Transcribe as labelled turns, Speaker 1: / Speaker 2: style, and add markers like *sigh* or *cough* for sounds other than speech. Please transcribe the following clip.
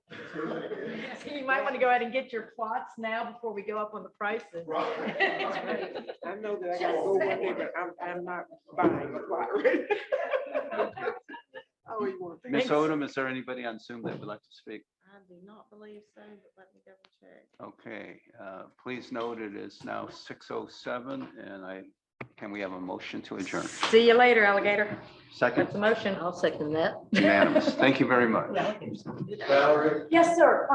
Speaker 1: *laughs* So you might want to go ahead and get your plots now before we go up on the prices.
Speaker 2: Right.
Speaker 3: I know that I gotta go one day, but I'm, I'm not buying a lot. *laughs* right now. Oh, you want to.
Speaker 4: Ms. Odom, is there anybody on Zoom that would like to speak?
Speaker 5: I do not believe so, but let me double check.
Speaker 4: Okay, uh, please note it is now 6:07 and I, can we have a motion to adjourn?
Speaker 1: *laughs* See you later, alligator. That's
Speaker 4: Second,
Speaker 1: a motion.
Speaker 6: I'll second that.
Speaker 4: unanimous. Thank you very much.
Speaker 2: Valerie?
Speaker 1: Yes, sir.